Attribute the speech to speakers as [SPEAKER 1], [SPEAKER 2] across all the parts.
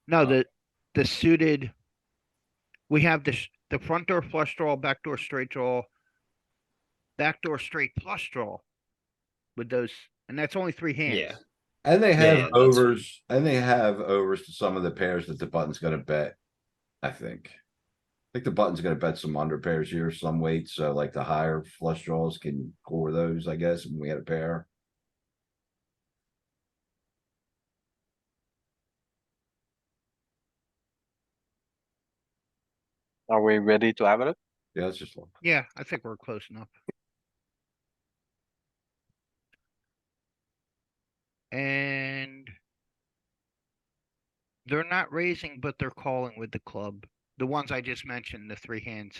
[SPEAKER 1] Oh.
[SPEAKER 2] No, the, the suited. We have the, sh- the front door flush draw, backdoor straight draw. Backdoor straight flush draw. With those, and that's only three hands.
[SPEAKER 3] Yeah.
[SPEAKER 4] And they
[SPEAKER 3] Yeah, yeah,
[SPEAKER 4] have
[SPEAKER 3] that's-
[SPEAKER 4] overs, and they have overs to some of the pairs that the button's gonna bet, I think. I think the button's gonna bet some under pairs here, some weight, so like the higher flush draws can core those, I guess, and we had a pair.
[SPEAKER 1] Are we ready to have it?
[SPEAKER 4] Yeah, let's just look.
[SPEAKER 2] Yeah, I think we're close enough. And. They're not raising, but they're calling with the club. The ones I just mentioned, the three hands.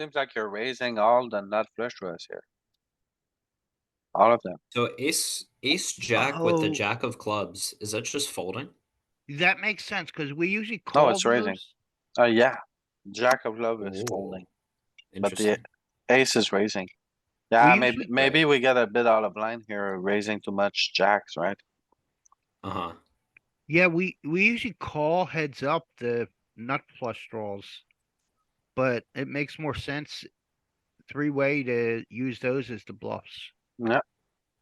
[SPEAKER 1] Seems like you're raising all the nut flush draws here. All of them.
[SPEAKER 3] So ace, ace jack with
[SPEAKER 2] Oh.
[SPEAKER 3] the jack of clubs, is that just folding?
[SPEAKER 2] That makes sense, cause we usually
[SPEAKER 1] No,
[SPEAKER 2] call
[SPEAKER 1] it's raising.
[SPEAKER 2] those.
[SPEAKER 1] Oh, yeah. Jack of love is
[SPEAKER 3] Ooh,
[SPEAKER 1] folding. But the
[SPEAKER 3] Interesting.
[SPEAKER 1] ace is raising. Yeah,
[SPEAKER 2] We
[SPEAKER 1] maybe,
[SPEAKER 2] usually-
[SPEAKER 1] maybe we get a bit out of line here, raising too much jacks, right?
[SPEAKER 3] Uh huh.
[SPEAKER 2] Yeah, we, we usually call heads up the nut flush draws. But it makes more sense. Three way to use those as the bluffs.
[SPEAKER 1] And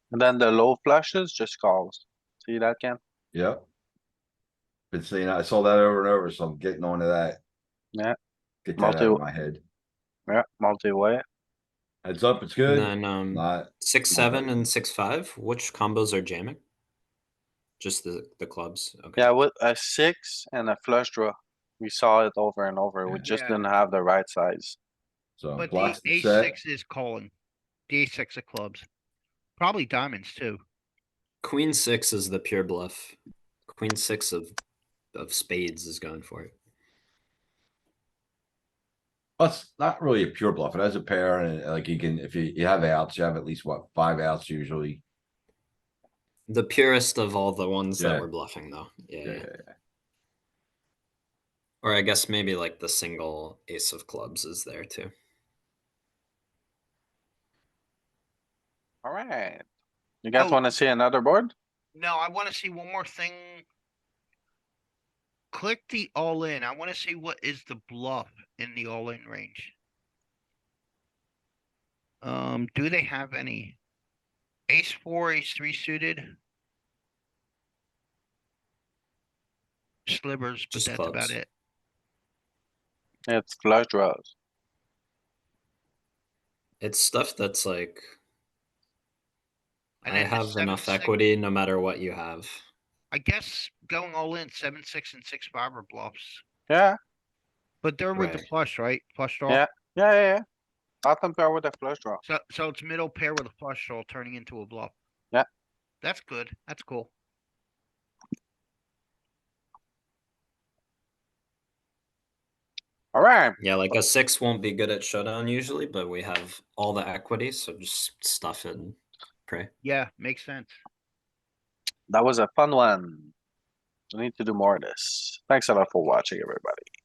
[SPEAKER 1] then the low flushes just calls. See that, Ken?
[SPEAKER 4] Yep. Been seeing, I saw that over and over, so I'm getting onto that.
[SPEAKER 1] Yeah.
[SPEAKER 4] Get that out
[SPEAKER 1] Multi-
[SPEAKER 4] of my head.
[SPEAKER 1] Yeah, multi-way.
[SPEAKER 4] Heads up, it's
[SPEAKER 3] And
[SPEAKER 4] good,
[SPEAKER 3] then, um,
[SPEAKER 4] not,
[SPEAKER 3] six, seven and six, five, which combos are jamming? Just the, the clubs, okay.
[SPEAKER 1] Yeah, with a six and a flush draw. We saw it over and over. We
[SPEAKER 4] Yeah.
[SPEAKER 1] just
[SPEAKER 2] Yeah.
[SPEAKER 1] didn't have the right size.
[SPEAKER 4] so
[SPEAKER 2] But the
[SPEAKER 4] blocks Uh, the
[SPEAKER 2] ace
[SPEAKER 4] set.
[SPEAKER 2] six is calling. The ace six of clubs. Probably diamonds too.
[SPEAKER 3] Queen six is the pure bluff. Queen six of, of spades is going for it.
[SPEAKER 4] That's not really a pure bluff. It has a pair and uh, like you can, if you, you have outs, you have at least what, five outs usually.
[SPEAKER 3] The purest of all the ones
[SPEAKER 4] Yeah.
[SPEAKER 3] that were bluffing though, yeah.
[SPEAKER 4] Yeah,
[SPEAKER 3] yeah. Or I guess maybe like the single ace of clubs is there too.
[SPEAKER 1] Alright. You guys
[SPEAKER 2] Oh.
[SPEAKER 1] wanna see another board?
[SPEAKER 2] No, I wanna see one more thing. Click the all in. I wanna see what is the bluff in the all in range. Um, do they have any? Ace four, ace three suited? Slivers, but
[SPEAKER 3] Just
[SPEAKER 2] that's about
[SPEAKER 3] clubs.
[SPEAKER 2] it.
[SPEAKER 1] It's flush draws.
[SPEAKER 3] It's stuff that's like I
[SPEAKER 2] think the
[SPEAKER 3] have
[SPEAKER 2] seven,
[SPEAKER 3] enough
[SPEAKER 2] six-
[SPEAKER 3] equity no matter what you have.
[SPEAKER 2] I guess going all in, seven, six and six, five are bluffs.
[SPEAKER 1] Yeah,
[SPEAKER 2] But they're with the
[SPEAKER 3] Right.
[SPEAKER 2] flush, right? Flush draw?
[SPEAKER 1] yeah, yeah, yeah. Not compare with a flush draw.
[SPEAKER 2] So, so it's middle pair with a flush draw turning into a bluff.
[SPEAKER 1] Yeah.
[SPEAKER 2] That's good. That's cool.
[SPEAKER 1] Alright,
[SPEAKER 3] Yeah, like a six won't be good at showdown usually, but we have all the equity, so just stuff it and pray.
[SPEAKER 2] Yeah, makes sense.
[SPEAKER 1] that was a fun one. We need to do more of this. Thanks a lot for watching, everybody.